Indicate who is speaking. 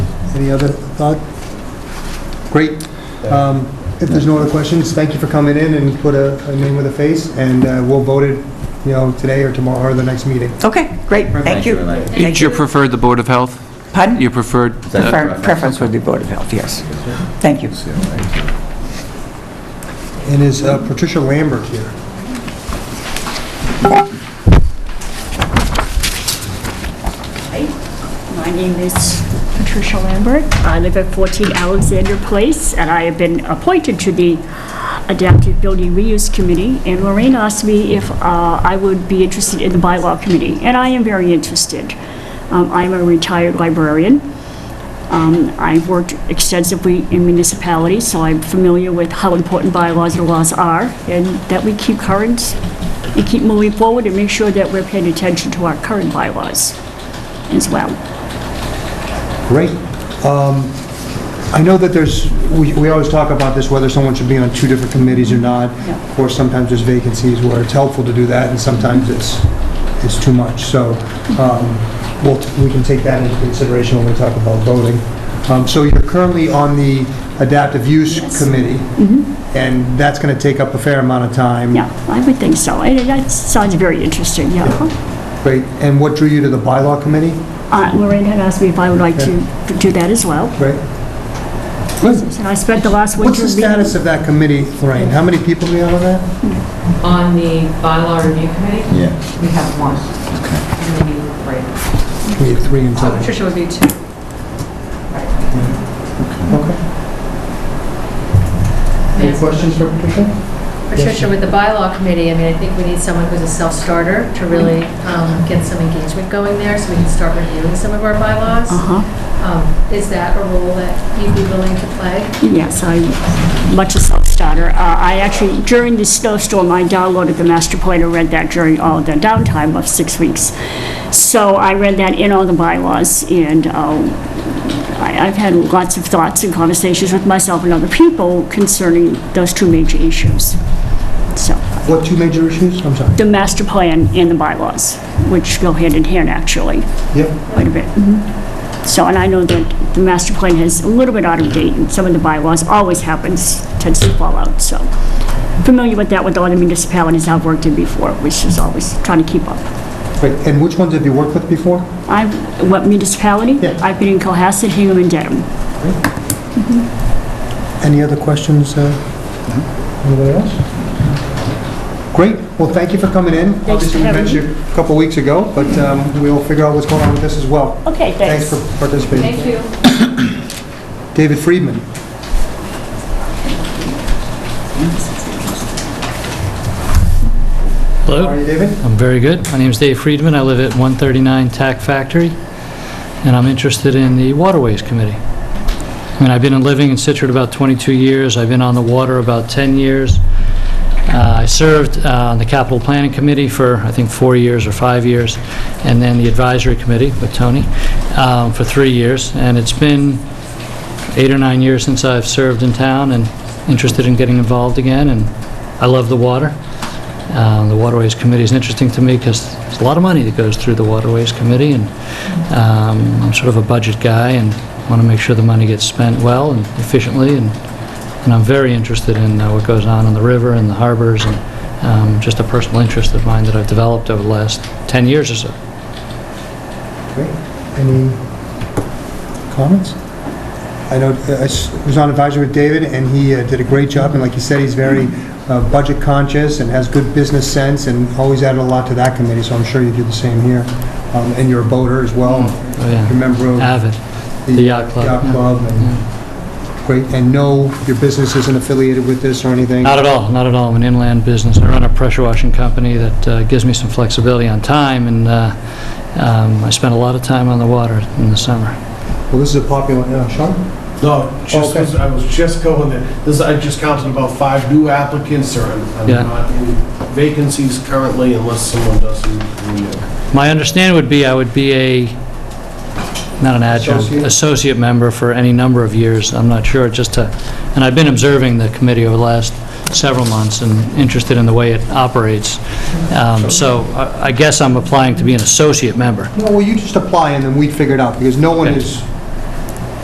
Speaker 1: Any other thought? Great. Um, If there's no other questions, thank you for coming in and put a a name with a face, and uh, we'll vote it, you know, today or tomorrow, or the next meeting.
Speaker 2: Okay, great, thank you.
Speaker 3: Elaine.
Speaker 2: Thank
Speaker 4: Your preferred, the Board of Health?
Speaker 2: Pardon?
Speaker 4: Your preferred? uh,
Speaker 2: Prefer- Preference would be Board of Health, yes. Thank you.
Speaker 1: And is uh, Patricia Lambert here?
Speaker 5: Hi, my name is Patricia Lambert. I live at 14 Alexander Place, and I have been appointed to the Adaptive Building Reuse Committee, and Lorraine asked me if uh, I would be interested in the bylaw committee, and I am very interested. Um, I'm a retired librarian. Um, I've worked extensively in municipalities, so I'm familiar with how important bylaws and laws are, and that we keep current, and keep moving forward, and make sure that we're paying attention to our current bylaws as well.
Speaker 1: Great. Um, I know that there's, we we always talk about this, whether someone should be on two different committees or not.
Speaker 5: Yeah.
Speaker 1: Of course, sometimes there's vacancies where it's helpful to do that, and sometimes it's, it's too much. So um, we'll, we can take that into consideration when we talk about voting. Um, So you're currently on the Adaptive Use Committee, and that's going to take up a fair amount of time.
Speaker 5: Mm-hmm. Yeah, I would think so. And that sounds very interesting, yeah.
Speaker 1: Great. And what drew you to the Bylaw Committee?
Speaker 5: Uh, Lorraine had asked me if I would like to do that as well.
Speaker 1: Great. Good.
Speaker 5: And I spent the last winter...
Speaker 1: What's the status of that committee, Lorraine? How many people do we have on that?
Speaker 6: On the bylaw review committee,
Speaker 3: Yeah,
Speaker 6: we have one. And we need three.
Speaker 1: We have three in
Speaker 6: So
Speaker 1: total.
Speaker 6: Patricia would be two. Right.
Speaker 1: Any questions for Patricia?
Speaker 7: Patricia, with the bylaw committee, I mean, I think we need someone who's a self-starter to really um, get some engagement going there, so we can start reviewing some of our bylaws.
Speaker 5: Uh-huh,
Speaker 7: Um, Is that a role that you'd be willing to play?
Speaker 5: yes, I, much a self-starter. Uh, I actually, during the snowstorm, I downloaded the master plan and read that during all the downtime of six weeks. So I read that in all the bylaws, and um, I- I've had lots of thoughts and conversations with myself and other people concerning those two major issues, so.
Speaker 1: What two major issues? I'm sorry.
Speaker 5: the master plan and the bylaws, which go hand in hand, actually,
Speaker 1: Yep.
Speaker 5: quite a bit.
Speaker 1: Mm-hmm.
Speaker 5: So, and I know that the master plan is a little bit out of date, and some of the bylaws always happens, tends to fall out, so. Familiar with that with all the municipalities I've worked in before, which is always trying to keep up.
Speaker 1: Great. And which ones have you worked with before?
Speaker 5: I, what municipality?
Speaker 1: Yeah.
Speaker 5: I've been in Cohasset, Hingham, and Dedham.
Speaker 1: Any other questions? uh, Anybody else? Mm-hmm. Great. Well, thank you for coming in.
Speaker 5: for
Speaker 1: Obviously, we
Speaker 5: having
Speaker 1: met
Speaker 5: me.
Speaker 1: you a couple weeks ago, but um, we'll figure out what's going on with this as well.
Speaker 5: Okay,
Speaker 1: Thanks for participating. Thank you. David Friedman. How are
Speaker 8: Hello,
Speaker 1: you, David?
Speaker 8: I'm very good. My name is Dave Friedman. I live at 139 Tack Factory, and I'm interested in the Waterways Committee. I mean, I've been living in Situate about 22 years. I've been on the water about 10 years. Uh, I served uh, on the Capital Planning Committee for, I think, four years or five years, and then the Advisory Committee with Tony um, for three years. And it's been eight or nine years since I've served in town and interested in getting involved again, and I love the water. Um, The Waterways Committee is interesting to me because there's a lot of money that goes through the Waterways Committee, and um, I'm sort of a budget guy and want to make sure the money gets spent well and efficiently, and and I'm very interested in uh, what goes on in the river and the harbors, and um, just a personal interest of mine that I've developed over the last 10 years or so.
Speaker 1: Great. Any comments? I know, uh, I s- was on advisory with David, and he uh, did a great job, and like you said, he's very uh, budget conscious and has good business sense, and always added a lot to that committee, so I'm sure you do the same here. Um, And you're a boater as well.
Speaker 8: Oh, yeah.
Speaker 1: You're a member of
Speaker 8: Avid.
Speaker 1: the
Speaker 8: the yacht club,
Speaker 1: Yacht
Speaker 8: yeah.
Speaker 1: club, and, great, and no, your business isn't affiliated with this or anything?
Speaker 8: Not at all, not at all. I'm an inland business. I run a pressure washing company that uh, gives me some flexibility on time, and uh, um, I spend a lot of time on the water in the summer.
Speaker 1: Well, this is a popular, uh, Sean? Oh,
Speaker 9: No, just,
Speaker 1: Okay.
Speaker 9: I was just going there. This, I just counted about five new applicants, or I'm I'm
Speaker 8: Yeah.
Speaker 9: not in vacancies currently unless someone doesn't renew.
Speaker 8: My understanding would be I would be a, not an adjunct,
Speaker 1: Associate?
Speaker 8: associate member for any number of years, I'm not sure, just to, and I've been observing the committee over the last several months and interested in the way it operates. Um, So I I guess I'm applying to be an associate member.
Speaker 1: No, well, you just apply, and then we figure it out, because no one
Speaker 8: Okay.
Speaker 1: is